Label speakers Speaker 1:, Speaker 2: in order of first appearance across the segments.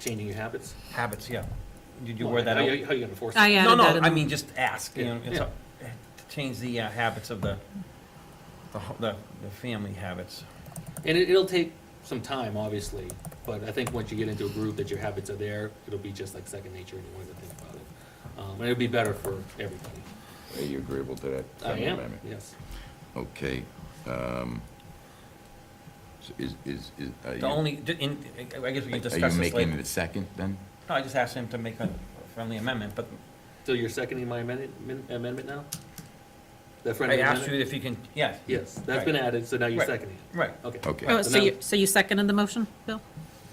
Speaker 1: Changing your habits?
Speaker 2: habits, yeah. Did you wear that
Speaker 1: How
Speaker 2: out?
Speaker 1: you- how you gonna enforce
Speaker 3: I
Speaker 1: it?
Speaker 3: added
Speaker 2: No,
Speaker 3: that.
Speaker 2: no,
Speaker 3: in
Speaker 2: I
Speaker 3: the-
Speaker 2: mean, just ask, you know, it's,
Speaker 1: Yeah.
Speaker 2: a- to change the uh, habits of the, the, ho- the, the family habits.
Speaker 1: And it, it'll take some time, obviously, but I think once you get into a group that your habits are there, it'll be just like second nature and you won't even think about it. Um, and it'll be better for everybody.
Speaker 4: Are you agreeable to that?
Speaker 1: I
Speaker 4: friendly
Speaker 1: am,
Speaker 4: amendment?
Speaker 1: yes.
Speaker 4: Okay. um, so Is, is, is. are
Speaker 2: The
Speaker 4: you-
Speaker 2: only, d- in, I guess we can
Speaker 4: Are
Speaker 2: discuss
Speaker 4: you
Speaker 2: this
Speaker 4: making it
Speaker 2: later.
Speaker 4: a second then?
Speaker 2: No, I just asked him to make a friendly amendment, but
Speaker 1: So you're seconding my amendment, amendment now? The friendly
Speaker 2: I asked you
Speaker 1: amendment?
Speaker 2: if you can, yes,
Speaker 1: Yes, that's been
Speaker 2: Right.
Speaker 1: added, so now you're
Speaker 2: Right.
Speaker 1: seconding it.
Speaker 2: right,
Speaker 1: Okay.
Speaker 4: Okay.
Speaker 3: Oh,
Speaker 1: So
Speaker 3: so
Speaker 1: now-
Speaker 3: you, so you seconded the motion, Bill?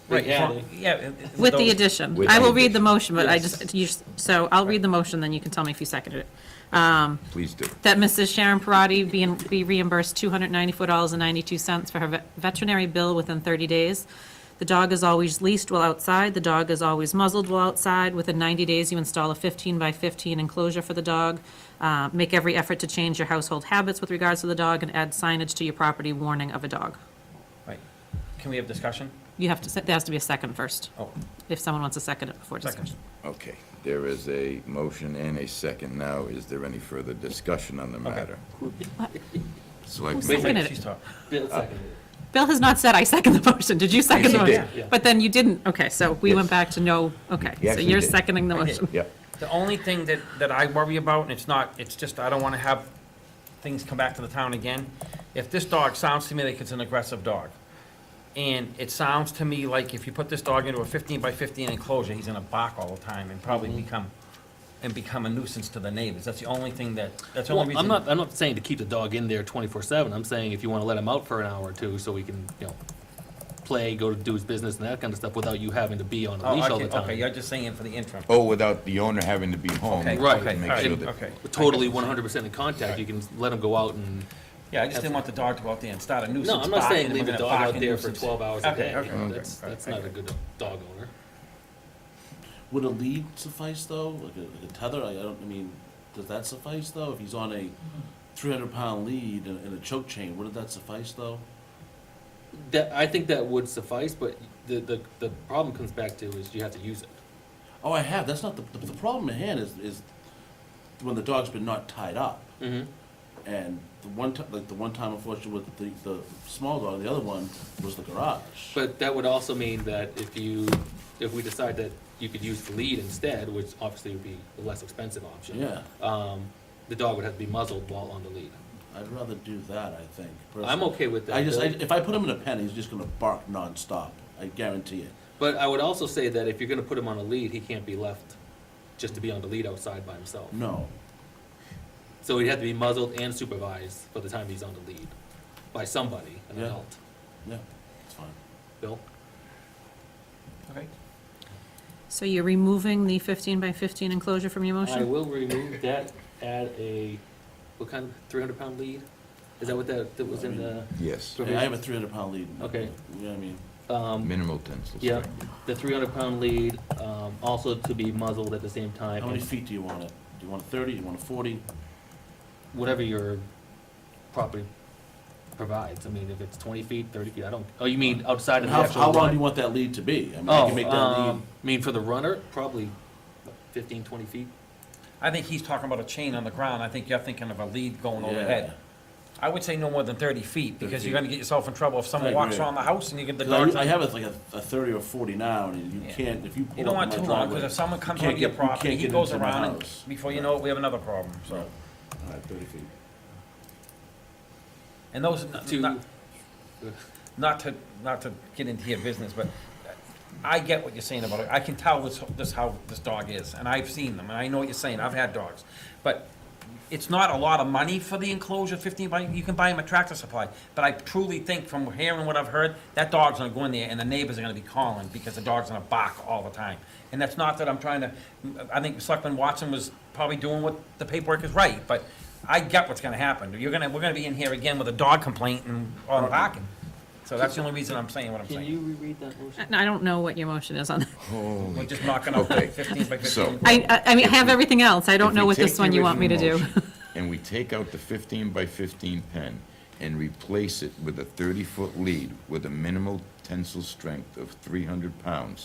Speaker 2: right,
Speaker 1: Yeah,
Speaker 2: so- yeah. it- it-
Speaker 3: With the
Speaker 2: those-
Speaker 3: addition.
Speaker 4: With
Speaker 3: I
Speaker 4: the
Speaker 3: will read the
Speaker 4: addition.
Speaker 3: motion, but I
Speaker 1: Yes.
Speaker 3: just, you, so I'll read the motion, then you can tell me if you seconded it. Um,
Speaker 4: Please do.
Speaker 3: that Mrs. Sharon Parati be in- be reimbursed $294.92 for her ve- veterinary bill within 30 days. The dog is always leased while outside, the dog is always muzzled while outside. Within 90 days, you install a 15 by 15 enclosure for the dog. Uh, Make every effort to change your household habits with regards to the dog and add signage to your property warning of a dog.
Speaker 2: Right, can we have discussion?
Speaker 3: You have to, se- there has to be a second first,
Speaker 2: Oh,
Speaker 3: if someone wants to second it before
Speaker 2: Second.
Speaker 3: discussion.
Speaker 4: Okay. There is a motion and a second now. Is there any further discussion on the matter?
Speaker 3: Who
Speaker 4: Selectman,
Speaker 3: seconded
Speaker 2: wait,
Speaker 3: it.
Speaker 2: she's talking.
Speaker 1: Bill seconded it.
Speaker 3: Bill has not said, I second the motion. Did you second the
Speaker 4: Yes, he
Speaker 3: motion?
Speaker 4: did.
Speaker 1: Yeah.
Speaker 3: But then you didn't. Okay, so we
Speaker 4: Yes.
Speaker 3: went back to no, okay.
Speaker 4: Yes,
Speaker 3: So
Speaker 4: he
Speaker 3: you're
Speaker 4: did.
Speaker 3: seconding the
Speaker 2: I did.
Speaker 3: motion.
Speaker 4: Yep.
Speaker 2: The only thing that, that I worry about, and it's not, it's just, I don't wanna have things come back to the town again. If this dog sounds to me like it's an aggressive dog, and it sounds to me like if you put this dog into a fifteen by fifteen enclosure, he's gonna bark all the time and probably
Speaker 1: Mm-hmm.
Speaker 2: become, and become a nuisance to the neighbors. That's the only thing that, that's the only
Speaker 1: Well,
Speaker 2: reason.
Speaker 1: I'm not, I'm not saying to keep the dog in there twenty-four seven, I'm saying if you wanna let him out for an hour or two, so he can, you know, play, go to do his business and that kinda stuff, without you having to be on a
Speaker 2: Oh,
Speaker 1: leash all
Speaker 2: okay,
Speaker 1: the time.
Speaker 2: Okay, you're just saying for the interim.
Speaker 4: Oh, without the owner having to be home.
Speaker 2: Okay,
Speaker 1: Right.
Speaker 2: okay,
Speaker 4: To make
Speaker 2: all right,
Speaker 4: sure that,
Speaker 2: Okay,
Speaker 1: We're Totally one hundred percent in contact, you can let him go out and,
Speaker 2: yeah, I just didn't want the dog to go out there and start a nuisance.
Speaker 1: no, I'm not
Speaker 2: barking,
Speaker 1: saying
Speaker 2: and
Speaker 1: leave
Speaker 2: we're
Speaker 1: the
Speaker 2: gonna
Speaker 1: dog
Speaker 2: bark
Speaker 1: out
Speaker 2: a
Speaker 1: there for
Speaker 2: nuisance.
Speaker 1: twelve hours a
Speaker 2: Okay,
Speaker 1: day,
Speaker 2: okay,
Speaker 1: You know,
Speaker 2: okay,
Speaker 1: that's,
Speaker 2: all right,
Speaker 1: that's not a good dog owner.
Speaker 5: Would a lead suffice though? Like a, like a tether? I, I don't. I mean, does that suffice though? If he's on a 300 pound lead and, and a choke chain, would that suffice though?
Speaker 1: That, I think that would suffice, but the, the, the problem comes back to is you have to use it.
Speaker 5: Oh, I have. That's not the the, the problem at hand. Is is when the dog's been not tied up,
Speaker 1: Mm-hmm.
Speaker 5: and the one time, like the one time, unfortunately, with the the small dog, the other one was the garage.
Speaker 1: But that would also mean that if you, if we decide that you could use the lead instead, which obviously would be the less expensive option.
Speaker 5: yeah,
Speaker 1: Um, the dog would have to be muzzled while on the lead.
Speaker 5: I'd rather do that. I think.
Speaker 1: I'm
Speaker 5: personally.
Speaker 1: okay with that.
Speaker 5: I just I,
Speaker 1: Bill.
Speaker 5: if I put him in a pen, he's just gonna bark nonstop. I guarantee it.
Speaker 1: But I would also say that if you're gonna put him on a lead, he can't be left just to be on the lead outside by himself.
Speaker 5: No,
Speaker 1: So he'd have to be muzzled and supervised by the time he's on the lead, by somebody, an
Speaker 5: Yeah.
Speaker 1: adult.
Speaker 5: yeah, it's fine.
Speaker 1: Bill?
Speaker 2: Okay.
Speaker 3: So you're removing the 15 by 15 enclosure from your
Speaker 1: I
Speaker 3: motion?
Speaker 1: will remove that, add a, what kind, three hundred pound lead? Is that what that, that was in the,
Speaker 4: yes,
Speaker 1: Okay.
Speaker 5: Yeah, I have a three hundred pound lead.
Speaker 1: Okay.
Speaker 5: You know what I mean?
Speaker 1: um,
Speaker 4: minimal tensile
Speaker 1: Yeah.
Speaker 4: strength.
Speaker 1: the three hundred pound lead, um, also to be muzzled at the same time?
Speaker 5: How many
Speaker 1: and
Speaker 5: feet do you want it? Do you want a thirty, do you want a forty?
Speaker 1: Whatever your property provides, I mean, if it's twenty feet, thirty feet, I don't, oh, you mean outside of the
Speaker 5: How,
Speaker 1: actual
Speaker 5: how long
Speaker 1: run?
Speaker 5: do you want that lead to be? I mean, I
Speaker 1: Oh,
Speaker 5: can make that lead.
Speaker 1: um, I mean, for the runner, probably what, fifteen, twenty feet.
Speaker 2: I think he's talking about a chain on the ground. I think you're thinking of a lead going
Speaker 5: Yeah.
Speaker 2: overhead. I would say no more than thirty feet, because you're
Speaker 5: 30.
Speaker 2: gonna get yourself in trouble if someone
Speaker 5: I
Speaker 2: walks
Speaker 5: agree.
Speaker 2: around the house and you get the dog.
Speaker 5: 'Cause I- I have it like a, a thirty or forty now, and you
Speaker 2: Yeah.
Speaker 5: can't, if you
Speaker 2: You
Speaker 5: pull
Speaker 2: don't
Speaker 5: up on
Speaker 2: want
Speaker 5: my
Speaker 2: too long,
Speaker 5: driveway.
Speaker 2: because if someone comes
Speaker 5: can't
Speaker 2: onto your
Speaker 5: get- you can't
Speaker 2: property, he
Speaker 5: get
Speaker 2: goes
Speaker 5: into my
Speaker 2: around, and
Speaker 5: house.
Speaker 2: before you know it, we have another problem, so.
Speaker 5: So, all right, thirty feet.
Speaker 2: And those, not-
Speaker 1: To-
Speaker 2: not, not to, not to get into your business, but I get what you're saying about it. I can tell this, this how this dog is, and I've seen them, and I know what you're saying. I've had dogs. But it's not a lot of money for the enclosure, fifteen by, you can buy him a tractor supply. But I truly think from hearing what I've heard, that dog's gonna go in there and the neighbors are gonna be calling because the dog's gonna bark all the time. And that's not that I'm trying to, I think Selectman Watson was probably doing what the paperwork is right, but I get what's gonna happen. You're gonna, we're gonna be in here again with a dog complaint and, on barking. So that's the only reason I'm saying what I'm
Speaker 1: Can
Speaker 2: saying.
Speaker 1: you reread that motion?
Speaker 3: Uh, I I don't know what your motion is on that.
Speaker 2: We're
Speaker 4: Holy,
Speaker 2: just knocking out
Speaker 4: Okay.
Speaker 2: the fifteen by
Speaker 4: So-
Speaker 2: fifteen.
Speaker 3: I, I- I mean, I have everything else. I
Speaker 4: If
Speaker 3: don't know
Speaker 4: we
Speaker 3: what
Speaker 4: take
Speaker 3: this
Speaker 4: the
Speaker 3: one you want me to
Speaker 4: original
Speaker 3: do.
Speaker 4: motion And we take out the fifteen by fifteen pen and replace it with a thirty-foot lead with a minimal tensile strength of three hundred pounds.